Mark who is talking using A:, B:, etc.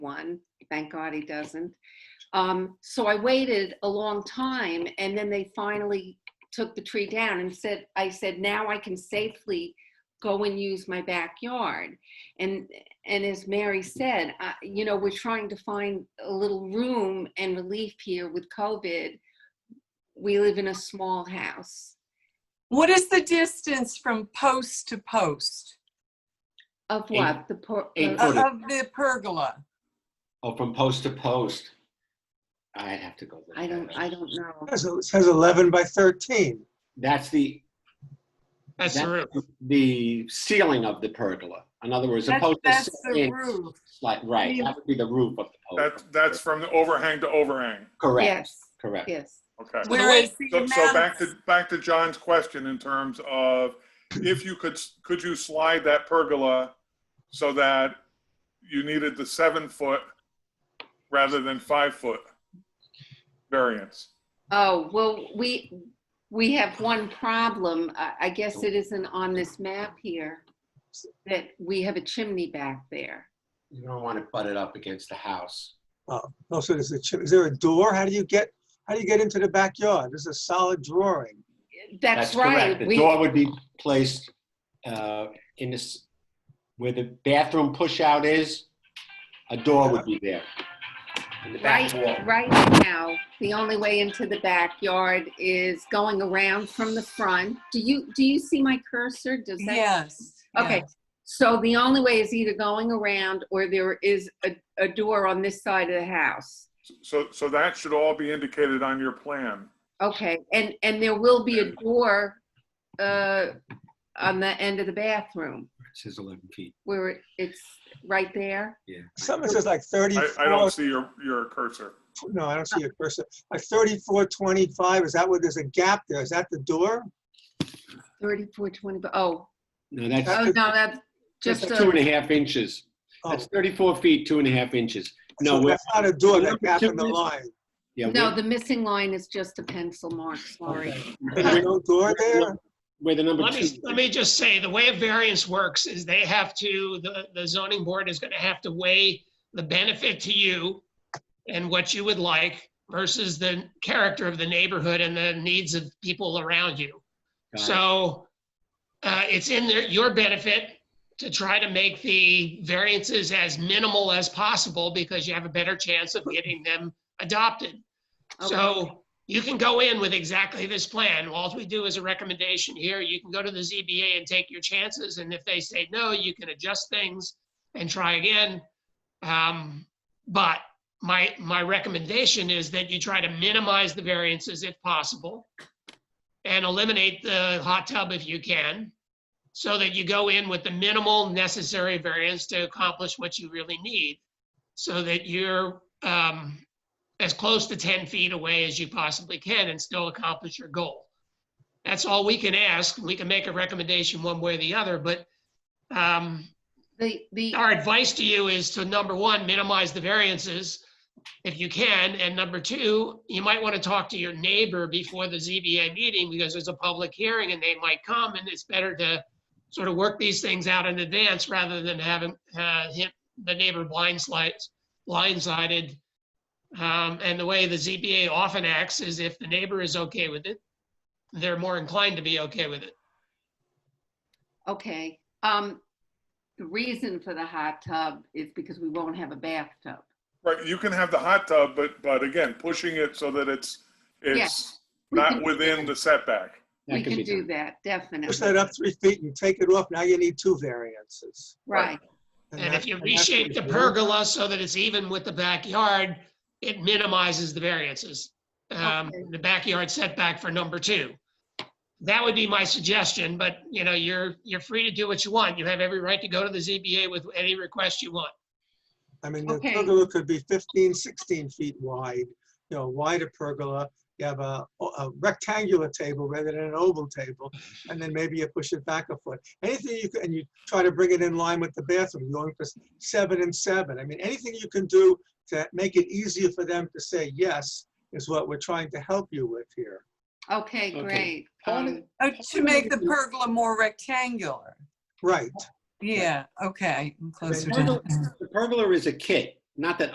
A: one. Thank God he doesn't. Um, so I waited a long time and then they finally took the tree down and said, I said, now I can safely go and use my backyard. And, and as Mary said, I, you know, we're trying to find a little room and relief here with COVID. We live in a small house,
B: What is the distance from post to post
A: of what? The uh, poor.
C: Eight
B: of
C: Forty.
B: of the pergola?
C: Oh, from post to post. I'd have to go. look
A: I
C: that
A: don't,
C: up.
A: I don't know.
D: It says- It says 11 by 13.
C: That's the,
E: That's the roof.
C: that's the ceiling of the pergola. In other words,
B: That's,
C: opposed to.
B: that's the
C: sitting
B: roof.
C: Like, right, that would be the roof of the pergola.
F: That's, that's from the overhang to overhang.
C: Correct,
A: Yes,
C: correct.
A: yes.
F: Okay.
B: Whereas the
F: So, so back
B: amount,
F: to, back to John's question in terms of if you could, could you slide that pergola so that you needed the seven foot rather than five foot variance?
A: Oh, well, we, we have one problem. I, I guess it isn't on this map here, that we have a chimney back there.
C: You don't want to butt it up against the house.
D: Oh, so there's a chim, is there a door? How do you get, how do you get into the backyard? There's a solid drawing.
A: That's
C: correct.
A: right.
C: The
A: We-
C: door would be placed uh, in this, where the bathroom pushout is, a door would be there. In the back
A: Right,
C: wall.
A: right now, the only way into the backyard is going around from the front. Do you, do you see my cursor? Does that?
B: yes.
A: Okay.
B: yes.
A: So the only way is either going around or there is a, a door on this side of the house.
F: So, so that should all be indicated on your plan.
A: Okay, and, and there will be a door, uh, on the end of the bathroom
C: It says 11 feet,
A: where it- it's right there.
C: yeah.
D: Something says like 34.
F: I, I don't see your, your cursor.
D: No, I don't see a cursor. Like 34, 25, is that where there's a gap there? Is that the door?
A: Thirty-four twenty, but, oh,
C: No, that's
A: oh, no, that's
C: just
A: just a,
C: two and a half inches.
D: Oh,
C: That's 34 feet, two and a half inches. No,
D: so
C: we're-
D: That's not a door,
C: we're
D: that gap in the
C: chimney-
D: line.
C: yeah,
A: no,
C: we're-
A: the missing line is just a pencil mark, sorry.
D: There's no door there?
C: We're the number
E: Let
C: two.
E: me, let me just say, the way a variance works is they have to, the, the zoning board is gonna have to weigh the benefit to you and what you would like versus the character of the neighborhood and the needs of people around you.
C: Got it.
E: So uh, it's in their, your benefit to try to make the variances as minimal as possible because you have a better chance of getting them adopted.
A: Okay.
E: So you can go in with exactly this plan. All we do is a recommendation here. You can go to the ZBA and take your chances. And if they say no, you can adjust things and try again. Um, But my, my recommendation is that you try to minimize the variances if possible and eliminate the hot tub if you can, so that you go in with the minimal necessary variance to accomplish what you really need, so that you're um, as close to 10 feet away as you possibly can and still accomplish your goal. That's all we can ask. We can make a recommendation one way or the other, but um,
A: The, the,
E: our advice to you is to, number one, minimize the variances if you can, and number two, you might want to talk to your neighbor before the ZBA meeting because there's a public hearing and they might come, and it's better to sort of work these things out in advance rather than having, uh, hit the neighbor blindsided, blindsided. Um, and the way the ZBA often acts is if the neighbor is okay with it, they're more inclined to be okay with it.
A: okay, um, the reason for the hot tub is because we won't have a bathtub.
F: Right, you can have the hot tub, but, but again, pushing it so that it's, it's
A: We
F: not
A: can-
F: within the setback.
C: That
A: We
C: can
A: can
C: be
A: do
C: done.
A: that, definitely.
D: Push that up three feet and take it off. Now you need two variances.
A: Right,
E: And if
D: that-
E: you
D: that's what
E: reshape the
D: you want.
E: pergola so that it's even with the backyard, it minimizes the variances. Um,
A: Okay.
E: the backyard setback for number two. That would be my suggestion, but you know, you're, you're free to do what you want. You have every right to go to the ZBA with any request you want.
D: I mean, the
A: Okay.
D: pergola could be 15, 16 feet wide, you know, wider pergola. You have a, a rectangular table rather than an oval table, and then maybe you push it back a foot. Anything you can, and you try to bring it in line with the bathroom, You're going for seven and seven. I mean, anything you can do to make it easier for them to say yes is what we're trying to help you with here.
A: okay,
C: Okay.
A: great.
C: Part of-
A: Um,
B: Uh, To make the pergola more rectangular.
D: Right.
B: Yeah, okay, I'm closer
C: The pergola-
B: to.
C: The pergola is a kit. not that